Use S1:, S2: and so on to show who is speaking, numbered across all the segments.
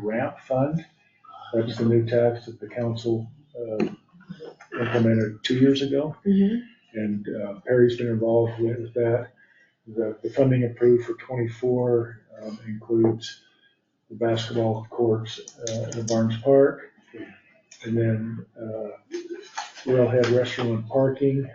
S1: ramp fund. That's the new tax that the council uh, implemented two years ago.
S2: Mhm.
S1: And uh, Perry's been involved with that. The, the funding approved for twenty-four um, includes the basketball courts uh, at Barnes Park. And then uh, Railhead Restaurant and Parking.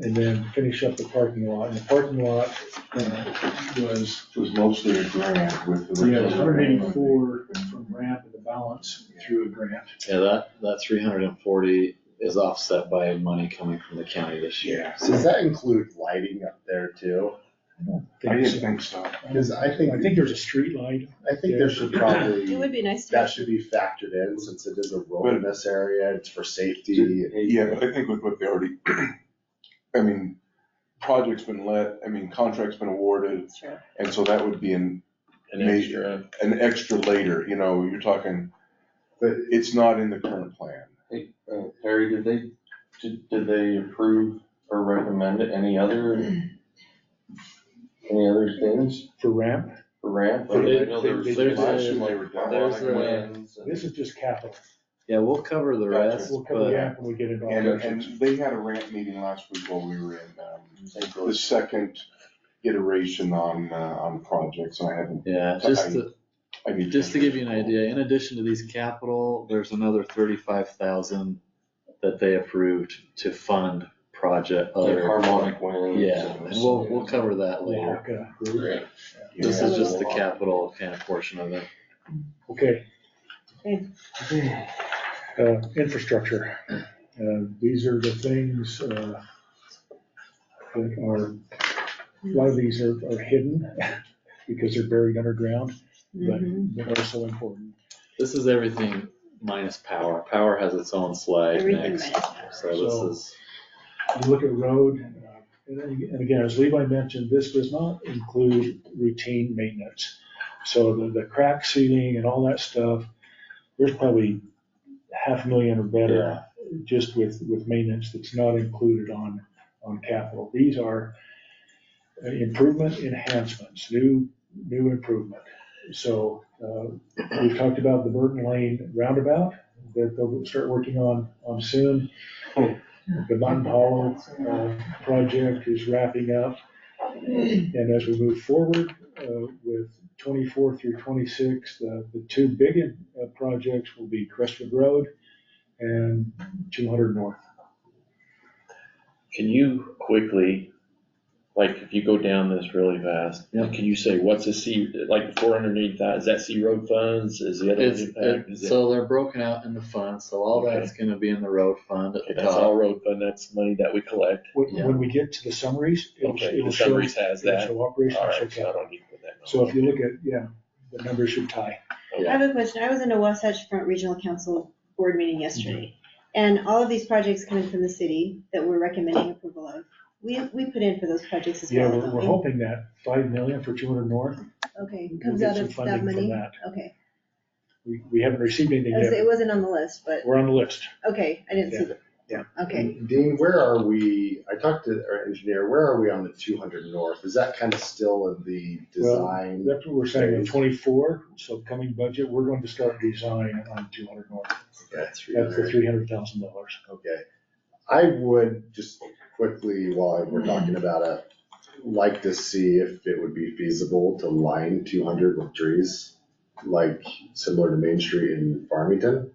S1: And then finish up the parking lot. And the parking lot uh, was
S3: was mostly a grant with the.
S1: Yeah, it was hundred eighty-four from ramp and the balance through a grant.
S4: Yeah, that, that three hundred and forty is offset by money coming from the county this year.
S3: Yeah.
S5: Does that include lighting up there too?
S3: I didn't think so.
S5: Cause I think,
S1: I think there's a street light.
S5: I think there should
S2: It
S5: probably,
S2: would be nice to.
S5: that should be factored in since it is a wilderness area, it's for safety.
S3: Yeah,
S6: Yeah, but I think with what they already, I mean, project's been let, I mean, contract's been awarded,
S2: Sure.
S6: and so that would be an,
S4: An extra,
S6: an extra later, you know, you're talking, but it's not in the current plan.
S7: Uh, Harry, did they, did, did they approve or recommend any other, any other things
S1: For ramp,
S7: for ramp?
S6: They-
S7: Like, I know there was-
S1: they-
S4: there's
S8: uh,
S6: Last year
S4: a,
S6: they were down like
S4: there's a-
S6: wins,
S1: this is just capital.
S4: yeah, we'll cover the rest,
S1: We'll cover
S4: but
S1: ramp when we get it
S6: And,
S1: all.
S6: and they had a rant meeting last week while we were in, um,
S7: St.
S6: the
S7: Louis.
S6: second iteration on, uh, on projects, and I haven't,
S4: yeah, just to,
S6: I need.
S4: just to give you an idea, in addition to these capital, there's another thirty-five thousand that they approved to fund project
S7: Like
S4: other,
S7: harmonic winds.
S4: yeah, and we'll, we'll cover that later.
S1: Waka.
S4: This is just the
S7: Yeah.
S4: capital kind of portion of it.
S1: Uh, Okay.
S2: Okay.
S1: Uh, infrastructure. Uh, these are the things, uh, that are, a lot of these are, are hidden because they're buried underground, but,
S2: Mhm.
S1: but are so important.
S4: This is everything minus power. Power has its own slide
S2: Everything
S4: next,
S2: minus.
S4: so this is,
S1: you look at road, uh, and then- and again, as Levi mentioned, this does not include routine maintenance. So the, the crack sealing and all that stuff, there's probably half a million or better just with, with maintenance that's not included on, on capital. These are uh, improvement enhancements, new, new improvement. So, uh, we've talked about the Burton Lane roundabout that they'll start working on, on soon. The Mountain Hollow uh, project is wrapping up. And as we move forward uh, with 24 through 26, the, the two big uh, projects will be Crestwood Road and 200 North.
S8: Can you quickly, like, if you go down this really fast,
S4: Yeah.
S8: can you say, what's a C, like, the four hundred and eighty thousand, is that C road funds, is the other?
S4: it's,
S8: impact?
S4: it-
S8: Is it-
S4: so they're broken out in the fund, so all
S8: Okay.
S4: that's gonna be in the road fund at
S8: Okay,
S4: the
S8: that's
S4: top.
S8: all road fund, that's money that we collect,
S1: When,
S4: Yeah.
S1: when we get to the summaries, it'll,
S8: okay,
S1: it'll
S8: the
S1: show,
S8: summaries has
S1: it'll
S8: that,
S1: show operational. show
S8: alright, so I
S1: capital.
S8: don't need to put that.
S1: So if you look at, yeah, the numbers should tie.
S2: I have a question. I was in a Wasatch Front Regional Council board meeting yesterday,
S1: Mm-hmm.
S2: and all of these projects coming from the city that we're recommending approval of, we, we put in for those projects as
S1: Yeah,
S2: well,
S1: we're, we're
S2: don't
S1: hoping that 5 million for 200 North.
S2: we? Okay,
S1: we'll
S2: comes
S1: get
S2: out
S1: some
S2: of that
S1: funding from
S2: money?
S1: that.
S2: Okay.
S1: We, we haven't received anything
S2: I was-
S1: yet.
S2: It wasn't on the list, but,
S1: We're on the list.
S2: okay, I didn't see that.
S5: Yeah.
S1: Mm-hmm.
S2: Okay.
S5: Dean, where are we, I talked to our engineer, where are we on the two hundred north? Is that kind of still in the design?
S1: That's what we're saying, in twenty-four, so coming budget, we're going to start design on two hundred north.
S5: That's
S1: That's the three hundred thousand dollars.
S5: Okay. I would just quickly, while we're talking about it, like to see if it would be feasible to line two hundred with trees, like similar to Main Street in Farmington.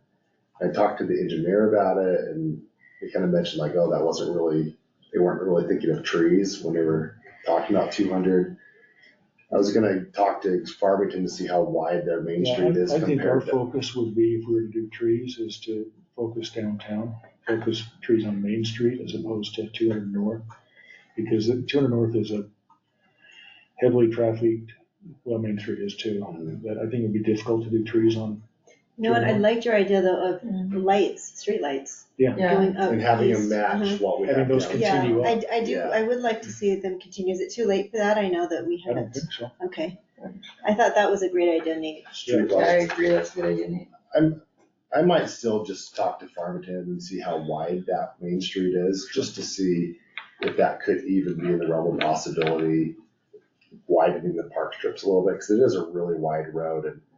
S5: I talked to the engineer about it and he kind of mentioned like, oh, that wasn't really, they weren't really thinking of trees when they were talking about two hundred. I was gonna talk to Farmington to see how wide their Main Street is
S1: I think our
S5: compared to.
S1: focus would be, if we were to do trees, is to focus downtown, focus trees on Main Street as opposed to two hundred north. Because two hundred north is a heavily trafficked, well, Main Street is too,
S5: Mm-hmm.
S1: but I think it'd be difficult to do trees on,
S2: You know what? I
S1: Mm-hmm.
S2: liked your idea though of lights, streetlights
S9: Yeah,
S2: going up.
S5: And having them
S2: east. Uh-huh.
S5: match what we have.
S1: Having those
S5: downtown.
S2: Yeah,
S1: Continue up.
S2: I, I do,
S5: Yeah.
S2: I would like to see them continue. Is it too late for that? I know that we
S1: I don't
S2: haven't.
S1: think so.
S2: Okay. I thought that was a great idea, Nate.
S5: Street
S9: I
S5: lights.
S9: agree, that's a good idea, Nate.
S5: I'm, I might still just talk to Farmington and see how wide that Main Street is, just to see if that could even be in the realm of possibility, widening the park strips a little bit, because it is a really wide road, and